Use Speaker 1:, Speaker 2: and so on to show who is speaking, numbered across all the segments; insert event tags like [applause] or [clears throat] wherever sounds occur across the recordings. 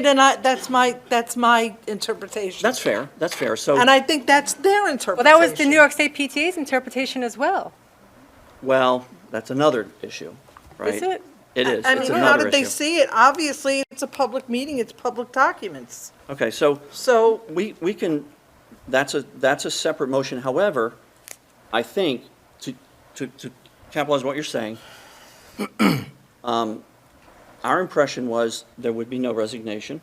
Speaker 1: Then I, that's my, that's my interpretation.
Speaker 2: That's fair, that's fair. So,
Speaker 1: And I think that's their interpretation.
Speaker 3: Well, that was the New York State PTA's interpretation as well.
Speaker 2: well, that's another issue, right?
Speaker 3: Is it?
Speaker 2: It is,
Speaker 1: I
Speaker 2: it's
Speaker 1: mean, how
Speaker 2: another
Speaker 1: did they
Speaker 2: issue.
Speaker 1: see it? Obviously, it's a public meeting, it's public documents.
Speaker 2: Okay, so
Speaker 1: So,
Speaker 2: we, we can, that's a, that's a separate motion. However, I think, to, to, to capitalize what you're saying, [clears throat] um, our impression was there would be no resignation.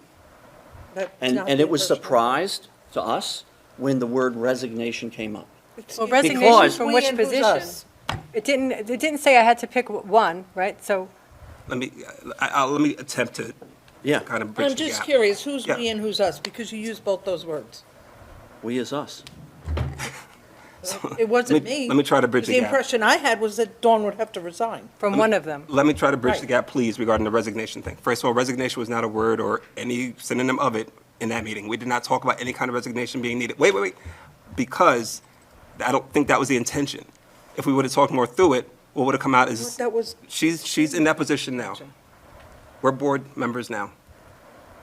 Speaker 1: that's
Speaker 2: And,
Speaker 1: not
Speaker 2: and
Speaker 1: the
Speaker 2: it was
Speaker 1: impression.
Speaker 2: surprised to us when the word resignation came up.
Speaker 3: Well,
Speaker 1: Excuse me.
Speaker 3: resignation
Speaker 2: Because-
Speaker 3: from
Speaker 1: We
Speaker 3: which
Speaker 1: and who's
Speaker 3: position?
Speaker 1: us?
Speaker 3: It didn't, it didn't say I had to pick w- one, right? So,
Speaker 4: Let me, I, I'll, let me attempt to
Speaker 2: Yeah,
Speaker 4: kind of bridge
Speaker 1: I'm
Speaker 4: the
Speaker 1: just
Speaker 4: gap.
Speaker 1: curious, who's
Speaker 4: Yeah.
Speaker 1: we and who's us? Because you used both those words.
Speaker 2: we is us.
Speaker 1: It wasn't
Speaker 4: Let
Speaker 1: me.
Speaker 4: Let me try to bridge the
Speaker 1: The
Speaker 4: gap.
Speaker 1: impression I had was that Dawn would have to resign.
Speaker 3: from one of them.
Speaker 4: Let me try to bridge the
Speaker 1: Right.
Speaker 4: gap, please, regarding the resignation thing. First of all, resignation was not a word or any synonym of it in that meeting. We did not talk about any kind of resignation being needed. Wait, wait, wait, because I don't think that was the intention. If we would have talked more through it, what would have come out is,
Speaker 1: That was,
Speaker 4: she's, she's in that position now. We're board members now.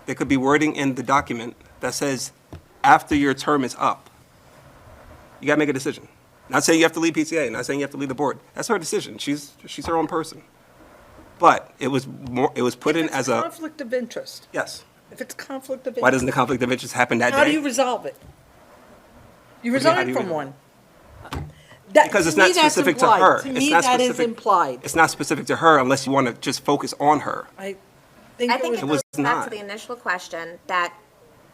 Speaker 4: There could be wording in the document that says, after your term is up, you gotta make a decision. Not saying you have to leave PTA, not saying you have to leave the board. That's her decision. She's, she's her own person. But it was more, it was put in
Speaker 1: if it's
Speaker 4: as a,
Speaker 1: conflict of interest,
Speaker 4: yes.
Speaker 1: if it's conflict of interest.
Speaker 4: Why doesn't the conflict of interest happen that
Speaker 1: How do you
Speaker 4: day?
Speaker 1: resolve it? You
Speaker 4: do you mean, how do
Speaker 1: resign
Speaker 4: you
Speaker 1: from
Speaker 4: resolve
Speaker 1: one. That-
Speaker 4: Because it's
Speaker 1: me,
Speaker 4: not
Speaker 1: that's
Speaker 4: specific to
Speaker 1: implied.
Speaker 4: her.
Speaker 1: To
Speaker 4: It's
Speaker 1: me,
Speaker 4: not
Speaker 1: that is
Speaker 4: specific-
Speaker 1: implied.
Speaker 4: It's not specific to her unless you wanna just focus on her.
Speaker 1: I think
Speaker 5: I
Speaker 1: it
Speaker 5: think
Speaker 1: was,
Speaker 5: it
Speaker 4: was
Speaker 5: goes back
Speaker 4: not.
Speaker 5: to the initial question that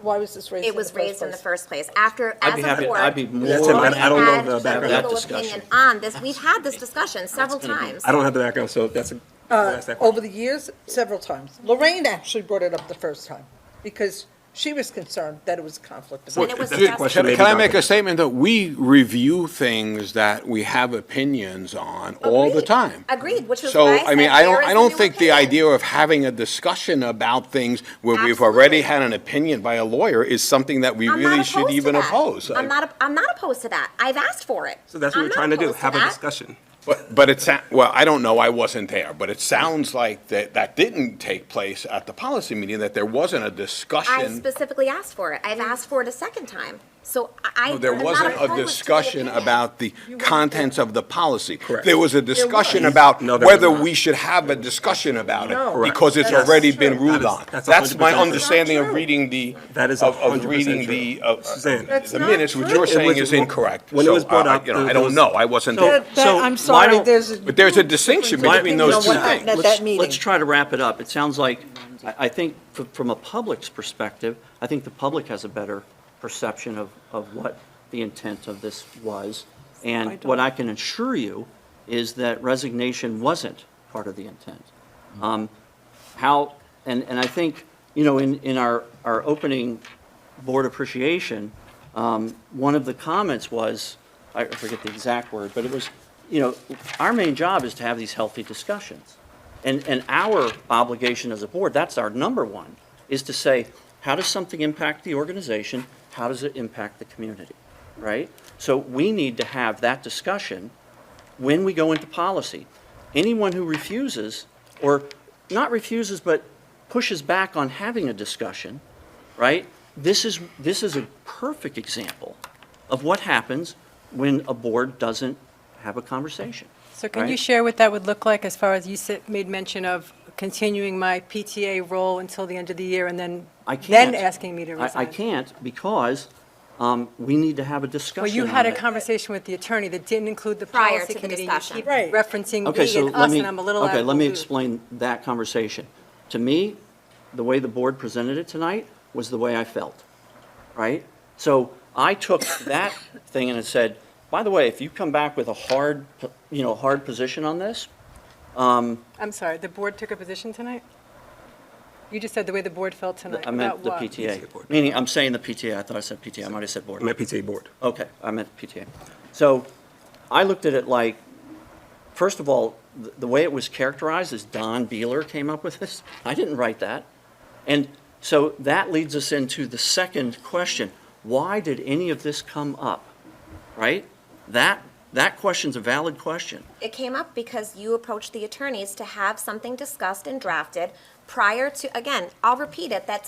Speaker 1: why was this raised in
Speaker 5: it
Speaker 1: the first
Speaker 5: was raised in the
Speaker 1: place?
Speaker 5: first place. After,
Speaker 2: I'd
Speaker 5: as
Speaker 2: be
Speaker 5: a
Speaker 2: happy-
Speaker 5: board,
Speaker 2: I'd be more
Speaker 4: That's him. I- I don't know
Speaker 5: had
Speaker 4: the
Speaker 5: a
Speaker 4: background.
Speaker 5: legal
Speaker 2: That discussion.
Speaker 5: opinion On this, we've had this discussion several times.
Speaker 4: I don't have the background, so that's a, that's
Speaker 1: Uh,
Speaker 4: that
Speaker 1: Over
Speaker 4: question.
Speaker 1: the years, several times. Lorraine actually brought it up the first time because she was concerned that it was a conflict of
Speaker 4: Well,
Speaker 5: And
Speaker 1: interest.
Speaker 5: it was
Speaker 4: that's a
Speaker 5: just-
Speaker 4: question
Speaker 6: Can
Speaker 4: maybe
Speaker 6: can I
Speaker 4: not-
Speaker 6: make a statement that we review things that we have opinions on all the
Speaker 5: Agreed.
Speaker 6: time?
Speaker 5: Agreed, which is
Speaker 6: So,
Speaker 5: why I
Speaker 6: I mean,
Speaker 5: said
Speaker 6: I
Speaker 5: there
Speaker 6: don't,
Speaker 5: is
Speaker 6: I
Speaker 5: a
Speaker 6: don't
Speaker 5: new
Speaker 6: think the
Speaker 5: opinion.
Speaker 6: idea of having a discussion about things where we've already
Speaker 5: Absolutely.
Speaker 6: had an opinion by a lawyer is something that we
Speaker 5: I'm not
Speaker 6: really should
Speaker 5: opposed to
Speaker 6: even
Speaker 5: that.
Speaker 6: oppose.
Speaker 5: I'm not, op- I'm not opposed to that. I've asked for it.
Speaker 4: So that's what
Speaker 5: I'm
Speaker 4: we're
Speaker 5: not
Speaker 4: trying to do,
Speaker 5: opposed
Speaker 4: have a
Speaker 5: that.
Speaker 4: discussion.
Speaker 6: But, but it's, well, I don't know, I wasn't there, but it sounds like that, that didn't take place at the policy meeting, that there wasn't a
Speaker 5: I
Speaker 6: discussion.
Speaker 5: specifically asked for it. I've asked for it a second time. So I.
Speaker 6: No, There
Speaker 5: I'm not
Speaker 6: wasn't
Speaker 5: opposed
Speaker 6: a
Speaker 5: to the
Speaker 6: discussion
Speaker 5: opinion.
Speaker 6: about the contents of the policy.
Speaker 4: Correct.
Speaker 6: There was a discussion
Speaker 4: was.
Speaker 6: about
Speaker 4: No, there was
Speaker 6: whether
Speaker 4: not.
Speaker 6: we should have a discussion about
Speaker 1: No.
Speaker 6: it,
Speaker 1: Correct.
Speaker 6: because it's
Speaker 1: That's
Speaker 6: already
Speaker 1: true.
Speaker 6: been ruled
Speaker 4: That is-
Speaker 6: on.
Speaker 4: that's
Speaker 6: That's my
Speaker 4: 100% true.
Speaker 6: understanding
Speaker 5: Not
Speaker 6: of
Speaker 5: true.
Speaker 6: reading the,
Speaker 4: That is
Speaker 6: of of
Speaker 4: 100%
Speaker 6: reading
Speaker 4: true.
Speaker 6: the, of-
Speaker 4: Suzanne.
Speaker 6: of
Speaker 1: That's
Speaker 6: the
Speaker 1: not
Speaker 6: minutes, which
Speaker 1: true.
Speaker 6: you're
Speaker 1: It
Speaker 6: saying
Speaker 4: was-
Speaker 6: is incorrect.
Speaker 4: when it
Speaker 6: So,
Speaker 4: was brought
Speaker 6: uh,
Speaker 4: up,
Speaker 6: you know, I
Speaker 4: there
Speaker 6: don't
Speaker 4: was-
Speaker 6: know, I wasn't
Speaker 2: So-
Speaker 6: there.
Speaker 1: That-
Speaker 2: so
Speaker 1: that- I'm
Speaker 2: why
Speaker 1: sorry,
Speaker 2: don't-
Speaker 1: there's. a
Speaker 6: But there's a
Speaker 1: huge
Speaker 6: distinction
Speaker 1: difference
Speaker 6: between
Speaker 1: on
Speaker 6: those
Speaker 1: what
Speaker 6: two
Speaker 1: happened At
Speaker 2: Let's-
Speaker 1: that meeting.
Speaker 2: Let's try to wrap it up. It sounds like, I, I think, f- from a public's perspective, I think the public has a better perception of, of what the intent of this was. And what I can assure you is that resignation wasn't part of the intent. Um, How, and, and I think, you know, in, in our, our opening board appreciation, um, one of the comments was, I forget the exact word, but it was, you know, our main job is to have these healthy discussions. And, and our obligation as a board, that's our number one, is to say, how does something impact the organization? How does it impact the community, right? So we need to have that discussion when we go into policy. Anyone who refuses, or not refuses, but pushes back on having a discussion, right? This is, this is a perfect example of what happens when a board doesn't have a conversation.
Speaker 3: So can you
Speaker 2: right?
Speaker 3: share what that would look like as far as you said, made mention of continuing my PTA role until the end of the year and then,
Speaker 2: I can't.
Speaker 3: then asking me to
Speaker 2: I-
Speaker 3: resign?
Speaker 2: I can't because um, we need to have a discussion
Speaker 3: Well, you had
Speaker 2: on
Speaker 3: a
Speaker 2: it.
Speaker 3: conversation with the attorney that didn't include the
Speaker 5: Prior
Speaker 3: policy
Speaker 5: to the
Speaker 3: committee.
Speaker 5: discussion.
Speaker 3: and
Speaker 1: Right.
Speaker 3: you keep referencing
Speaker 2: Okay,
Speaker 3: me
Speaker 2: so
Speaker 3: and
Speaker 2: let
Speaker 3: us,
Speaker 2: me,
Speaker 3: and I'm a little out of
Speaker 2: okay, let me
Speaker 3: the loop.
Speaker 2: explain that conversation. To me, the way the board presented it tonight was the way I felt, right? So I took that thing and it said, by the way, if you come back with a hard, p- you know, hard position on this,
Speaker 3: I'm sorry, the board took a position tonight? You just said the way the board felt tonight.
Speaker 2: I
Speaker 3: About
Speaker 2: meant the
Speaker 3: what?
Speaker 2: PTA.
Speaker 4: PTA board.
Speaker 2: Meaning, I'm saying the PTA, I thought I said PTA, I might have said board.
Speaker 4: I'm at PTA board.
Speaker 2: Okay, I meant PTA. So I looked at it like, first of all, the, the way it was characterized is Don Beeler came up with this. I didn't write that. And so that leads us into the second question. Why did any of this come up? Right? That, that question's a valid question.
Speaker 5: It came up because you approached the attorneys to have something discussed and drafted prior to, again, I'll repeat it, that